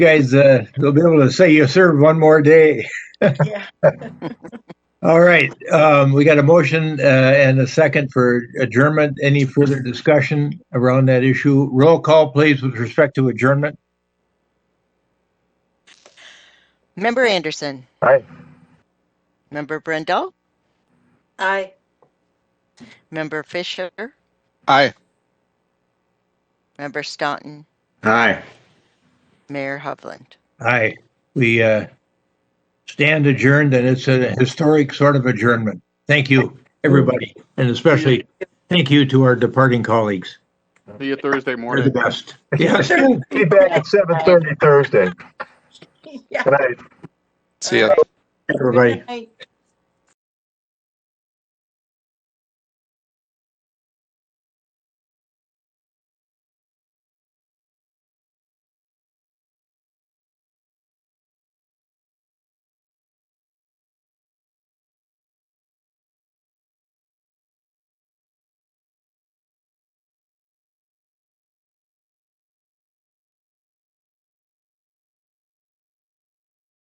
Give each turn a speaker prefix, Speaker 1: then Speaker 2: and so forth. Speaker 1: guys, uh, they'll be able to say you served one more day.
Speaker 2: Yeah.
Speaker 1: All right, um, we got a motion, uh, and a second for adjournment. Any further discussion around that issue? Roll call, please, with respect to adjournment.
Speaker 3: Member Anderson.
Speaker 4: Aye.
Speaker 3: Member Brendel.
Speaker 2: Aye.
Speaker 3: Member Fisher.
Speaker 4: Aye.
Speaker 3: Member Staunton.
Speaker 4: Aye.
Speaker 3: Mayor Hovland.
Speaker 1: Aye, we, uh, stand adjourned, and it's a historic sort of adjournment. Thank you, everybody, and especially thank you to our departing colleagues.
Speaker 5: See you Thursday
Speaker 1: You're the
Speaker 5: morning.
Speaker 1: best. Yes.
Speaker 4: Be back at seven thirty Thursday.
Speaker 2: Yeah.
Speaker 4: Good night.
Speaker 2: See ya.
Speaker 1: Everybody.
Speaker 2: Good night.